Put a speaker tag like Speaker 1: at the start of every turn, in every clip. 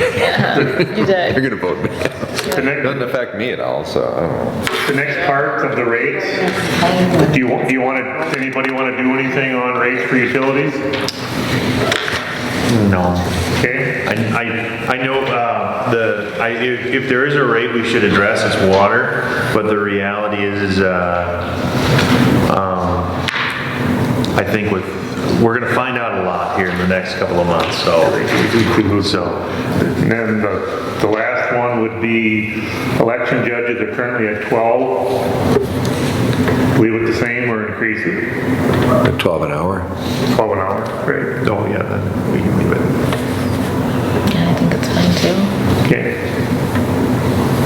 Speaker 1: You
Speaker 2: You're
Speaker 1: did.
Speaker 2: gonna vote me.
Speaker 3: The
Speaker 2: Doesn't
Speaker 3: next,
Speaker 2: affect me at all, so I don't know.
Speaker 3: the next part of the rates, do you, do you want to, anybody want to do anything on rates for utilities?
Speaker 4: No.
Speaker 3: Okay,
Speaker 4: I, I, I know, uh, the, I, if, if there is a rate we should address, it's water, but the reality is, is, uh, um, I think with, we're gonna find out a lot here in the next couple of months, so, so,
Speaker 3: and then the, the last one would be election judges are currently at 12. Leave it the same or increase it,
Speaker 5: At 12 an hour?
Speaker 3: 12 an hour, great,
Speaker 4: oh, yeah, then we can leave it.
Speaker 1: Yeah, I think it's fine too.
Speaker 3: okay.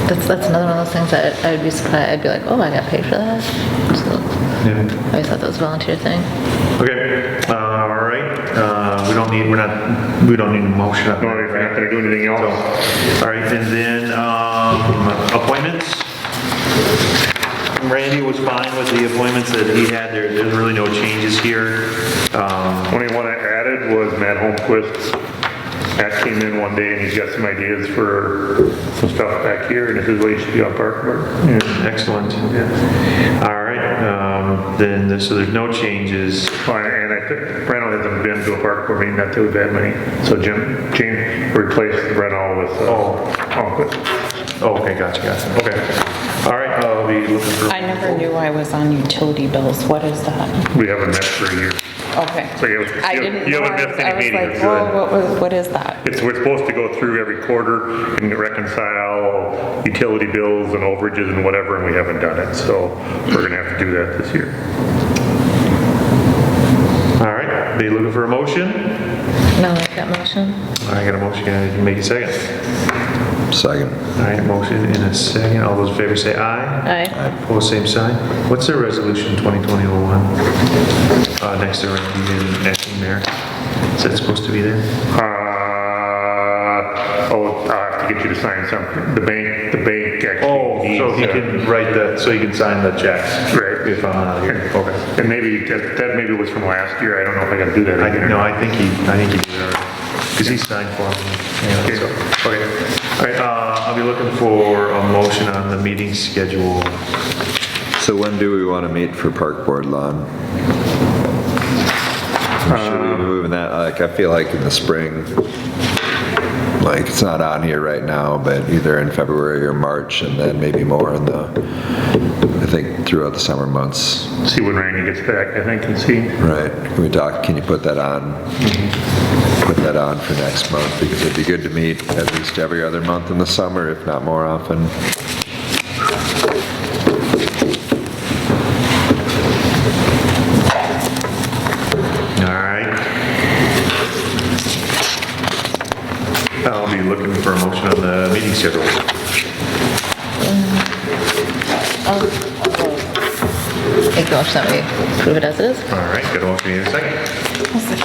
Speaker 1: That's, that's another one of those things that I'd be surprised, I'd be like, oh, I got paid for that. So I
Speaker 4: Yeah.
Speaker 1: always thought that was a volunteer thing.
Speaker 4: Okay, uh, all right, uh, we don't need, we're not, we don't need a motion. on
Speaker 3: No,
Speaker 4: that,
Speaker 3: if you're not
Speaker 4: right?
Speaker 3: going to do anything
Speaker 4: So,
Speaker 3: else,
Speaker 4: all right, and then, um, appointments. Randy was fine with the appointments that he had, there, there's really no changes here. Um,
Speaker 3: only one I added was Matt Holmquist. Matt came in one day and he's got some ideas for some stuff back here, and this is what he should do on Park Board. And
Speaker 4: excellent. All right, um, then, this- so there's no changes.
Speaker 3: Well, And I think Breno hasn't been to a park board meeting, not that we've had many. So Jim, Jim replaced Breno with, uh, oh,
Speaker 4: Oh, okay, gotcha, gotcha, okay. All right, I'll be looking for.
Speaker 6: I never knew I was on utility bills. What is that?
Speaker 3: we haven't met for a year.
Speaker 6: Okay.
Speaker 3: So you haven't-
Speaker 6: I
Speaker 3: you-
Speaker 6: didn't
Speaker 3: you
Speaker 6: know.
Speaker 3: haven't missed
Speaker 6: I was-
Speaker 3: any
Speaker 6: I was
Speaker 3: meetings,
Speaker 6: like,
Speaker 3: good.
Speaker 6: whoa, what was, what is that?
Speaker 3: It's, we're supposed to go through every quarter and reconcile utility bills and overages and whatever, and we haven't done it. So we're gonna have to do that this year.
Speaker 4: All right, be looking for a motion.
Speaker 1: No, like that motion?
Speaker 4: I got a motion, can I make a second?
Speaker 5: Second.
Speaker 4: All right, motion in a second. All those in favor say aye.
Speaker 1: Aye.
Speaker 4: Opposed, same sign. What's the resolution 2020-01? Uh, next to Randy and acting mayor. Is that supposed to be there?
Speaker 3: Uh, oh, I'll have to get you to sign something. The bank, the bank actually.
Speaker 4: Oh, so
Speaker 3: needs
Speaker 4: he
Speaker 3: to-
Speaker 4: can write the, so he can sign the checks.
Speaker 3: Right.
Speaker 4: If I'm out of here, okay.
Speaker 3: And maybe, that that maybe was from last year. I don't know if I gotta do that
Speaker 4: I,
Speaker 3: again or
Speaker 4: no,
Speaker 3: not.
Speaker 4: I think he, I think he did it because he signed for me. Yeah, so, okay. All right, uh, I'll be looking for a motion on the meeting schedule.
Speaker 5: So when do we want to meet for park board lawn? Should we be
Speaker 2: Um,
Speaker 5: moving that, like, I feel like in the spring, like, it's not on here right now, but either in February or March, and then maybe more in the, I think throughout the summer months,
Speaker 3: See when Randy gets back, I think, and see.
Speaker 5: right? Can we talk, can you put that on? Put that on for next month, because it'd be good to meet at least every other month in the summer, if not more often.
Speaker 4: All right. I'll be looking for a motion on the meeting schedule.
Speaker 1: Acknowledge that we approve it as it is.
Speaker 4: All right, good motion, need a second. Motion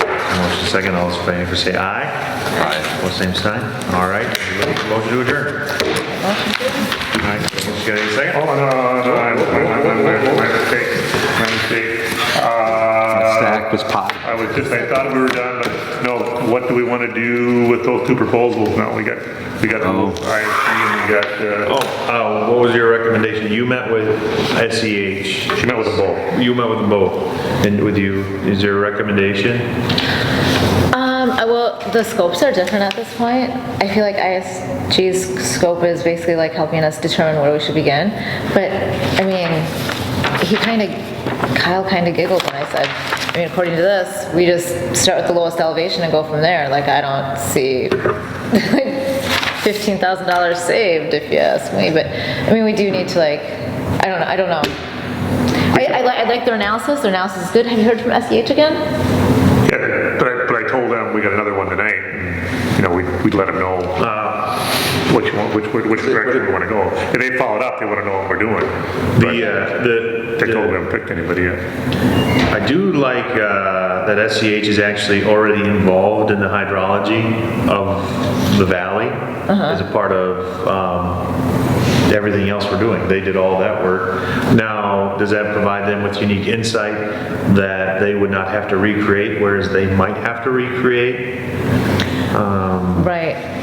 Speaker 4: second, all those in favor say aye. Aye. All same sign. All right, everybody, motion to adjourn. All right, motion got a second?
Speaker 3: Oh, no, no, no, my, my, my, my, my mistake, my mistake. Uh,
Speaker 5: Stack was pot.
Speaker 3: I was just, I thought we were done, but no, what do we want to do with those two proposals now? We got, we got the little ISP and we
Speaker 4: Oh,
Speaker 3: got, uh,
Speaker 4: uh, what was your recommendation? You met with SEH,
Speaker 3: she met with a bull.
Speaker 4: you met with both, and with you, is there a recommendation?
Speaker 1: Um, I- well, the scopes are different at this point. I feel like ISG's scope is basically like helping us determine where we should begin. But, I mean, he kind of, Kyle kind of giggled when I said, I mean, according to this, we just start with the lowest elevation and go from there. Like, I don't see $15,000 saved if you ask me, but, I mean, we do need to like, I don't know, I don't know. I, I li- I like their analysis, their analysis is good. Have you heard from SEH again?
Speaker 3: Yeah, but I, but I told them we got another one tonight, and, you know, we, we'd let them know, uh, which one, which, which which direction we want to go. If they followed up, they want to know what we're doing.
Speaker 4: The, uh, the.
Speaker 3: But They told me I haven't picked anybody yet.
Speaker 4: I do like uh, that SCH is actually already involved in the hydrology of the valley as a part of um, everything else we're doing. They did all that work. Now, does that provide them with unique insight that they would not have to recreate, whereas they might have to recreate?
Speaker 1: Right,